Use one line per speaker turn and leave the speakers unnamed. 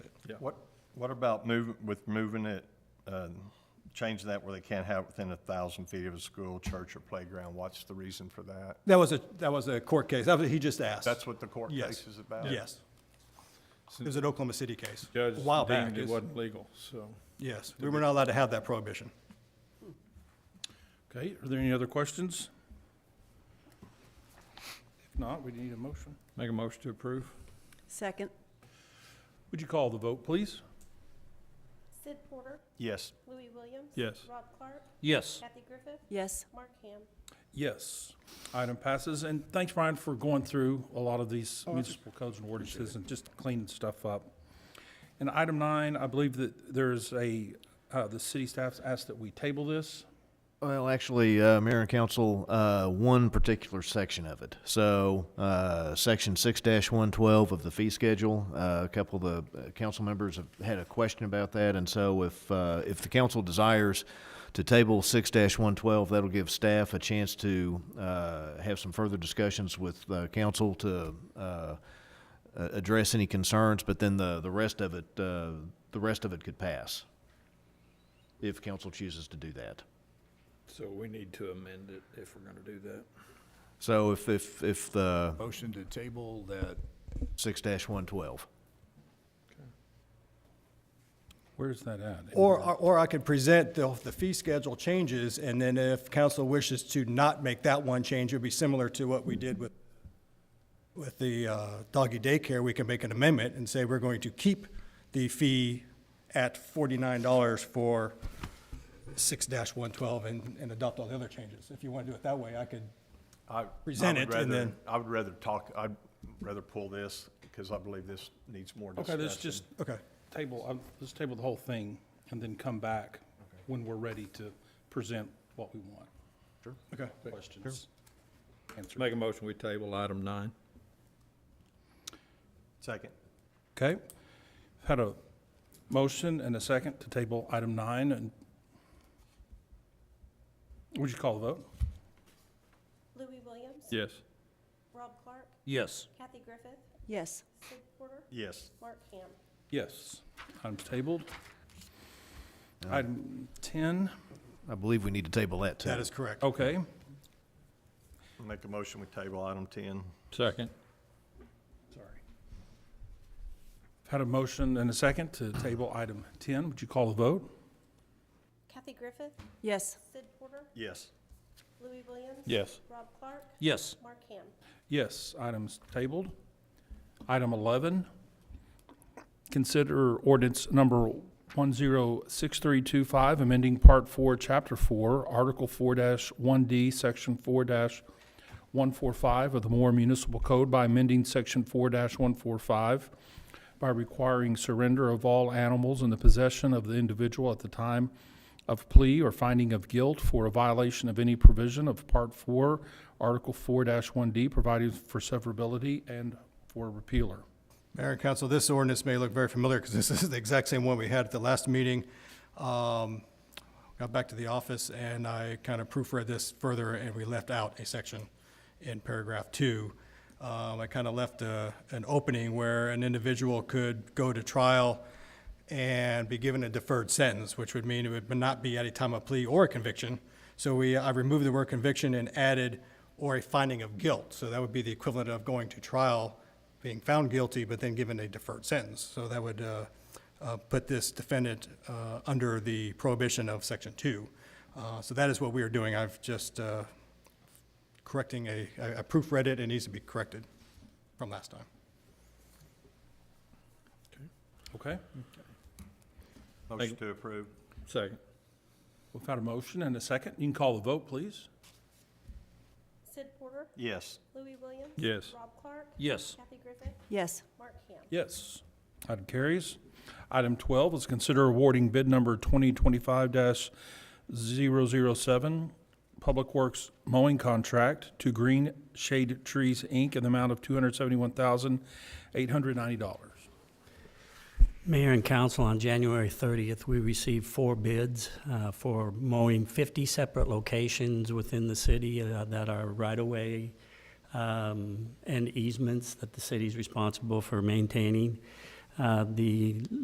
Yeah.
What, what about moving, with moving it, uh, change that where they can't have it within a thousand feet of a school, church, or playground? What's the reason for that?
That was a, that was a court case. That was, he just asked.
That's what the court
Yes.
case is about?
Yes. It was an Oklahoma City case.
Judge
A while back,
deemed it
yes.
wasn't legal, so.
Yes, we were not allowed to have that prohibition.
Okay, are there any other questions? If not, we need a motion. Make a motion to approve.
Second.
Would you call the vote, please?
Sid Porter,
Yes.
Louis Williams.
Yes.
Rob Clark,
Yes.
Kathy Griffith,
Yes.
Mark Ham.
Yes. Item passes, and thanks, Brian, for going through a lot of these municipal codes and ordinances and just cleaning stuff up. And item nine, I believe that there's a, uh, the city staff's asked that we table this.
Well, actually, uh, Mayor and Council, uh, one particular section of it. So, uh, Section 6-112 of the fee schedule, uh, a couple of the uh, council members have had a question about that, and so if, uh, if the council desires to table 6-112, that'll give staff a chance to uh, have some further discussions with uh, council to uh, a- address any concerns, but then the, the rest of it, uh, the rest of it could pass, if council chooses to do that.
So we need to amend it if we're gonna do that.
So if, if, if the
Motion to table that
six dash one twelve.
Where's that at?
Or, or I could present the, the fee schedule changes, and then if council wishes to not make that one change, it'd be similar to what we did with, with the uh, doggy daycare, we can make an amendment and say we're going to keep the fee at forty-nine dollars for six one twelve and, and adopt all the other changes. If you want to do it that way, I could,
I- I
Present
would
it and
rather-
then-
I would rather talk, I'd rather pull this, because I believe this needs more
Okay,
discussion.
let's just
okay,
table, uh, let's table the whole thing and then come back when we're ready to present what we want.
okay.
Questions? Answered.
Make a motion, we table item nine.
Second.
Okay. Had a motion and a second to table item nine and would you call the vote?
Louis Williams.
Yes.
Rob Clark,
Yes.
Kathy Griffith,
Yes.
Sid Porter,
Yes.
Mark Ham.
Yes. Item's tabled. Item ten,
I believe we need to table that too.
That is correct.
okay.
Make a motion, we table item ten.
Second.
Sorry. Had a motion and a second to table item ten. Would you call the vote?
Kathy Griffith,
Yes.
Sid Porter,
Yes.
Louis Williams.
Yes.
Rob Clark,
Yes.
Mark Ham.
Yes, item's tabled. Item 11, consider ordinance number 106325, amending Part 4, Chapter 4, Article 4-1D, Section 4-145 of the Moore Municipal Code by amending Section 4-145 by requiring surrender of all animals in the possession of the individual at the time of plea or finding of guilt for a violation of any provision of Part Four, Article four one D, providing for severability and for repealer.
Mayor and council, this ordinance may look very familiar because this is the exact same one we had at the last meeting. Um, Got back to the office and I kind of proofread this further and we left out a section in paragraph two. Um, I kind of left a, an opening where an individual could go to trial and be given a deferred sentence, which would mean it would not be at a time of plea or a conviction. So we, I removed the word conviction and added or a finding of guilt. So that would be the equivalent of going to trial, being found guilty, but then given a deferred sentence. So that would uh, uh, put this defendant uh, under the prohibition of Section 2. Uh, So that is what we are doing. I've just uh, correcting a, I I proofread it, it needs to be corrected from last time.
Okay?
Motion to approve.
Second.
We've had a motion and a second. You can call the vote, please.
Sid Porter,
Yes.
Louis Williams.
Yes.
Rob Clark,
Yes.
Kathy Griffith,
Yes.
Mark Ham.
Yes. Item carries. Item 12 is consider awarding bid number 2025-007, Public Works Mowing Contract to Green Shade Trees, Inc., in the amount of $271,890.
Mayor and council, on January 30th, we received four bids uh, for mowing 50 separate locations within the city uh, that are right-of-way um, and easements that the city's responsible for maintaining. Uh, The